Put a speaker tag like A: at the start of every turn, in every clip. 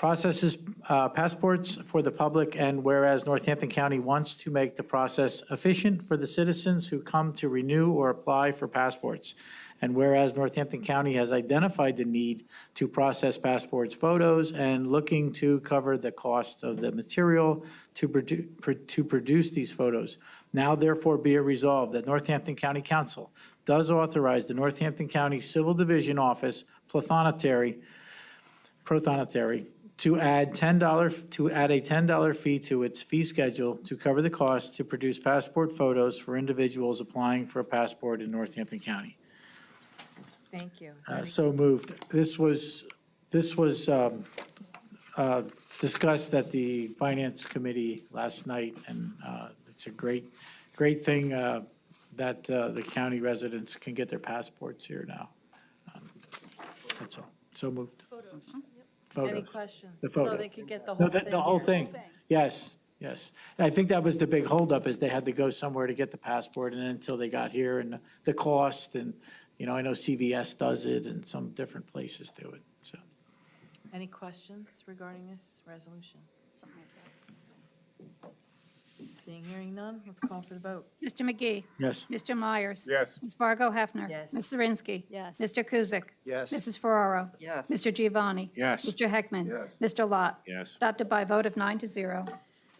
A: processes uh, passports for the public, and whereas Northampton County wants to make the process efficient for the citizens who come to renew or apply for passports, and whereas Northampton County has identified the need to process passports photos and looking to cover the cost of the material to produ- pro- to produce these photos. Now therefore be it resolved that Northampton County Council does authorize the Northampton County Civil Division Office, Plathonetary, Prothonotary to add $10, to add a $10 fee to its fee schedule to cover the cost to produce passport photos for individuals applying for a passport in Northampton County.
B: Thank you. Is
A: Uh,
B: there any-
A: So moved. This was, this was um, uh, discussed at the Finance Committee last night, and uh, it's a great, great thing uh, that uh, the county residents can get their passports here now. Um, That's all. So moved. Photos.
B: Any questions?
A: The
B: So they
A: photos.
B: could get the
A: No,
B: whole
A: the,
B: thing.
A: the whole
B: here.
A: thing. Yes, yes. And I think that was the big holdup, is they had to go somewhere to get the passport, and then until they got here, and the cost, and, you know, I know CVS does it, and some different places do it, so.
B: Any questions regarding this resolution? Seeing, hearing none, let's call for the vote.
C: Mr. McGee.
A: Yes.
C: Mr. Myers.
D: Yes.
C: Ms. Fargo Hefner.
B: Yes.
C: Ms. Zirinsky.
E: Yes.
C: Mr. Kuzic.
D: Yes.
C: Mrs. Ferraro.
B: Yes.
C: Mr. Giovanni.
D: Yes.
C: Mr. Heckman.
D: Yes.
C: Mr. Lot.
D: Yes.
C: Adopted by a vote of nine to zero.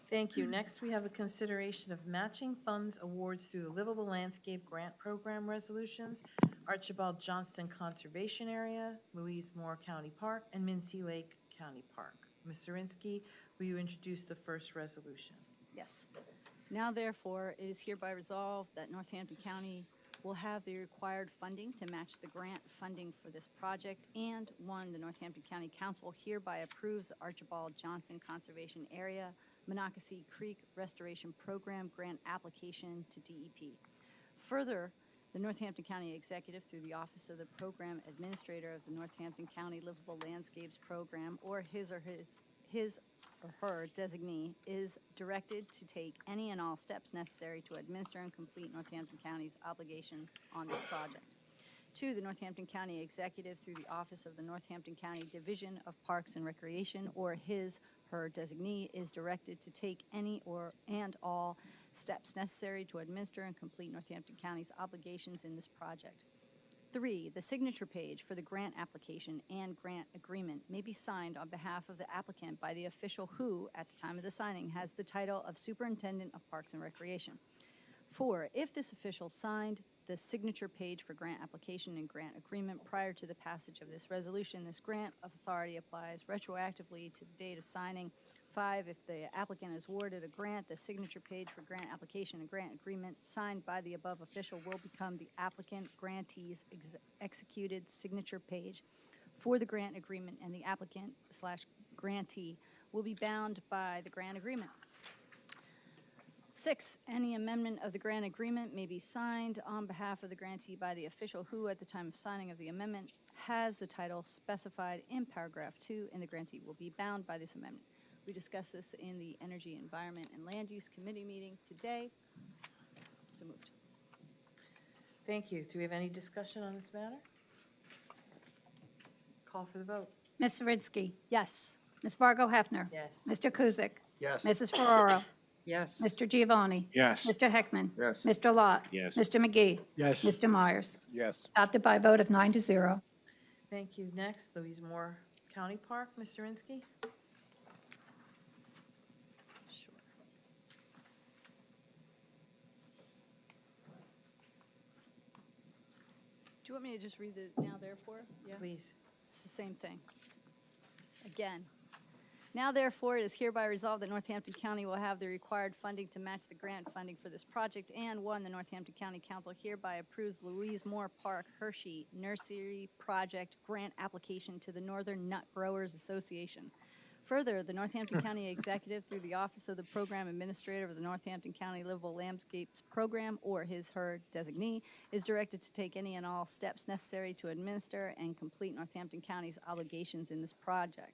B: Thank you. Next, we have a consideration of matching funds awards through the Livable Landscape Grant Program resolutions, Archibald Johnston Conservation Area, Louise Moore County Park, and Mincy Lake County Park. Ms. Zirinsky, will you introduce the first resolution?
E: Yes. Now therefore, it is hereby resolved that Northampton County will have the required funding to match the grant funding for this project. And one, the Northampton County Council hereby approves the Archibald Johnson Conservation Area Monocacy Creek Restoration Program Grant Application to E DEP. Further, the Northampton County Executive, through the Office of the Program Administrator of the Northampton County Livable Landscapes Program, or his or his, his or her designee, is directed to take any and all steps necessary to administer and complete Northampton County's obligations on this project. Two, the Northampton County Executive through the Office of the Northampton County Division of Parks and Recreation or his/her designee is directed to take any or and all steps necessary to administer and complete Northampton County's obligations in this project. Three, the signature page for the grant application and grant agreement may be signed on behalf of the applicant by the official who, at the time of the signing, has the title of Superintendent of Parks and Recreation. Four, if this official signed the signature page for grant application and grant agreement prior to the passage of this resolution, this grant of authority applies retroactively to the date of signing. Five, if the applicant is awarded a grant, the signature page for grant application and grant agreement signed by the above official will become the applicant grantee's ex- executed signature page for the grant agreement, and the applicant slash grantee will be bound by the grant agreement. Six, any amendment of the grant agreement may be signed on behalf of the grantee by the official who, at the time of signing of the amendment, has the title specified in paragraph two, and the grantee will be bound by this amendment. We discussed this in the Energy, Environment, and Land Use Committee meeting today. So moved.
B: Thank you. Do we have any discussion on this matter? Call for the vote.
C: Ms. Zirinsky.
E: Yes.
C: Ms. Fargo Hefner.
B: Yes.
C: Mr. Kuzic.
D: Yes.
C: Mrs. Ferraro.
B: Yes.
C: Mr. Giovanni.
D: Yes.
C: Mr. Heckman.
D: Yes.
C: Mr. Lot.
D: Yes.
C: Mr. McGee.
A: Yes.
C: Mr. Myers.
D: Yes.
C: Adopted by a vote of nine to zero.
B: Thank you. Next, Louise Moore County Park, Ms. Zirinsky.
E: Sure. Do you want me to just read the now therefore? Yeah.
B: Please.
E: It's the same thing. Again. Now therefore, it is hereby resolved that Northampton County will have the required funding to match the grant funding for this project. And one, the Northampton County Council hereby approves Louise Moore Park Hershey Nursery Project Grant Application to the Northern Nut Growers Association. Further, the Northampton County Executive, through the Office of the Program Administrator of the Northampton County Livable Landscapes Program, or his/her designee, is directed to take any and all steps necessary to administer and complete Northampton County's obligations in this project.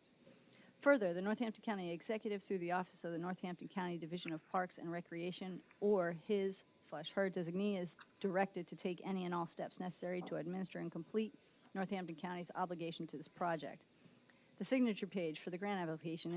E: Further, the Northampton County Executive, through the Office of the Northampton County Division of Parks and Recreation, or his slash her designee, is directed to take any and all steps necessary to administer and complete Northampton County's obligation to this project. The The signature page for the grant application